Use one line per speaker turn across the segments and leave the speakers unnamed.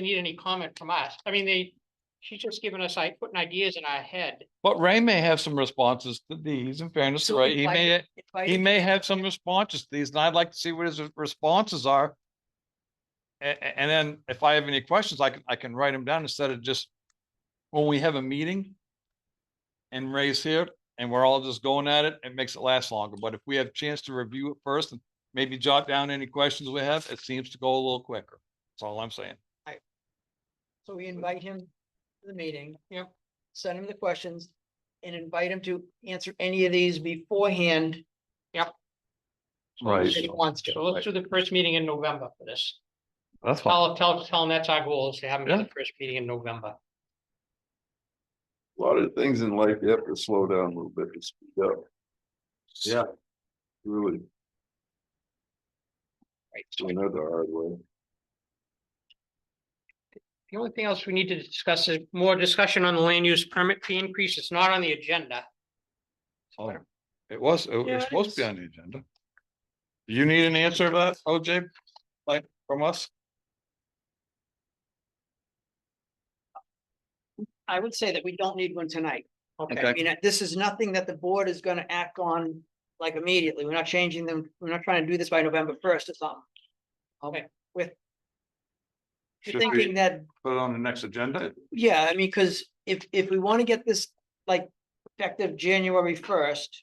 need any comment from us. I mean, they, she's just giving us, like, putting ideas in our head.
But Ray may have some responses to these, in fairness, to
So
Ray, he
invite
may,
Invite
he
him.
may have some responses to these, and I'd like to see what his responses are. A- a- and then if I have any questions, I can, I can write them down instead of just when we have a meeting and Ray's here, and we're all just going at it, it makes it last longer, but if we have a chance to review it first and maybe jot down any questions we have, it seems to go a little quicker. That's all I'm saying.
So we invite him to the meeting.
Yep.
Send him the questions and invite him to answer any of these beforehand
Right,
if he wants
So
to.
let's do the first meeting in November for this.
that's
Tell,
fine.
tell, tell them that's our goal is to have them at the first meeting in November.
A lot of things in life, you have to slow down a little bit to speed up. Yeah. Really,
Right. So
we know the hard way.
The only thing else we need to discuss is more discussion on the land use permit fee increase. It's not on the agenda.
Oh, It was, it
Yeah, it
was supposed to be on the agenda. Do you need an answer to that, OJ? Like from us?
I would say that we don't need one tonight. I
Okay.
mean, this is nothing that the board is gonna act on like immediately. We're not changing them. We're not trying to do this by November first or something.
Okay.
Um, with. You're
Should we-
thinking that,
Put it on the next agenda?
yeah, I mean, cause if, if we wanna get this like effective January first.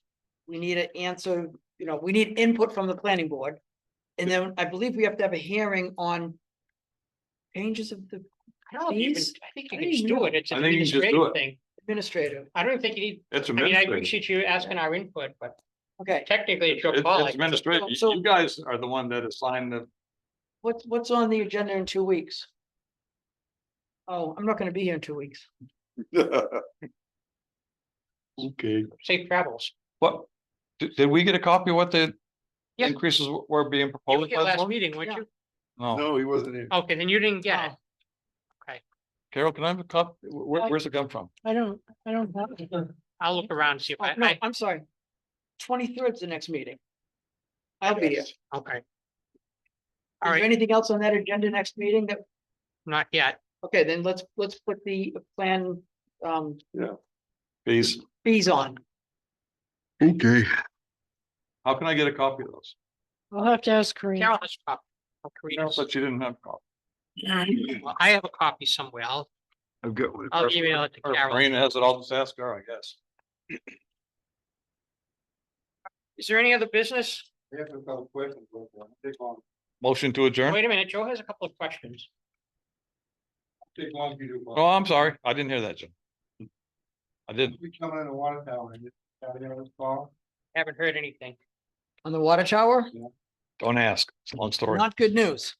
We need an answer, you know, we need input from the planning board. And then I believe we have to have a hearing on. Changes of the
I don't even,
Please?
I think you
I
can just
didn't
do it. It's
I
an
think you can just do
administrative
it.
thing.
administrative,
I don't think you need,
It's
I mean, I
administrative.
appreciate you asking our input, but
okay,
technically it's your
It's
call.
it's
I guess.
administrative.
So-
You you guys are the one that assigned the,
what's, what's on the agenda in two weeks? Oh, I'm not gonna be here in two weeks.
Okay.
Safe travels.
what? Did, did we get a copy of what the
Yeah.
increases were- were being
You were
proposed?
here
by the
last
board?
meeting, weren't
Yeah.
you? Oh.
No,
No, he wasn't here.
Okay, then you didn't get it.
Carol, can I have a copy? Where,
I-
where's it come from?
I don't, I don't have.
I'll look around, and see if
Oh,
I,
No,
I,
I'm sorry. Twenty-third's the next meeting. I'll be here. Is
okay. All
there
right,
anything else on that agenda next meeting that,
not yet.
okay, then let's, let's put the plan, um,
Please,
fees on.
Okay.
how can I get a copy of those?
I'll have to ask Corinne.
Carol has a copy. I'll create
I
it.
thought you didn't have a copy.
Well, I have a copy somewhere. I'll,
I've got one.
I'll email it to
Or
Carol.
Marina has it, I'll just ask her, I guess.
Is there any other business?
uh,
Motion to adjourn?
Wait a minute, Joe has a couple of questions.
Take long if you do.
Oh, I'm sorry. I didn't hear that, Jim. I didn't.
We come in a water tower and just have it on the call.
Haven't heard anything.
On the water tower,
Don't ask. It's a long story.
not good news.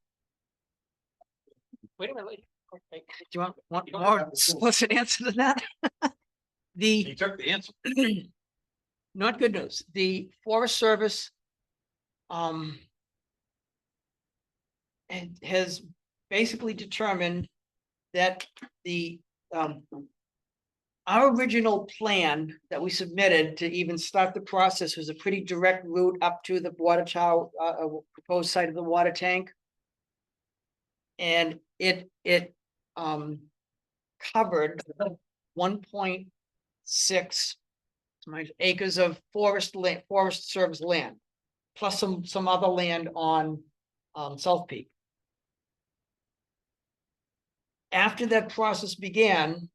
Wait a minute. wait.
Do you want, want
You don't
more
have to do it.
explicit answer than that? The,
took the answer.
not good news, the Forest Service, um, and has basically determined that the, um, our original plan that we submitted to even start the process was a pretty direct route up to the water tower, uh, uh, proposed site of the water tank. And it, it, um, covered one point six my acres of forest land, forest service land. Plus some, some other land on, um, South Peak. After that process began,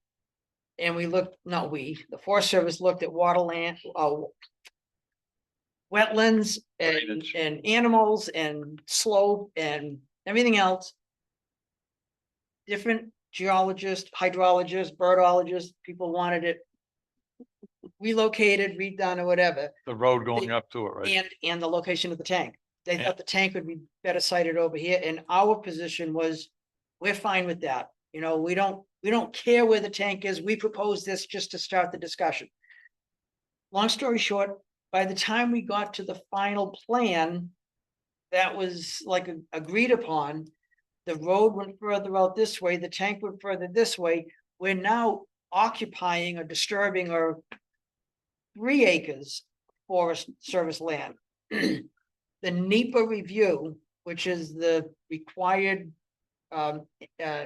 and we looked, not we, the Forest Service looked at water land, uh. Wetlands and,
Drainage.
and animals and slope and everything else. Different geologists, hydrologists, birdologists, people wanted it relocated, redone or whatever,
The road going up to it, right?
and, and the location of the tank. They
Yeah.
thought the tank would be better sited over here, and our position was, we're fine with that. You know, we don't, we don't care where the tank is, we propose this just to start the discussion. Long story short, by the time we got to the final plan, that was like a- agreed upon, the road went further out this way, the tank went further this way. We're now occupying or disturbing or three acres forest service land. The E NEPA review, which is the required um, uh,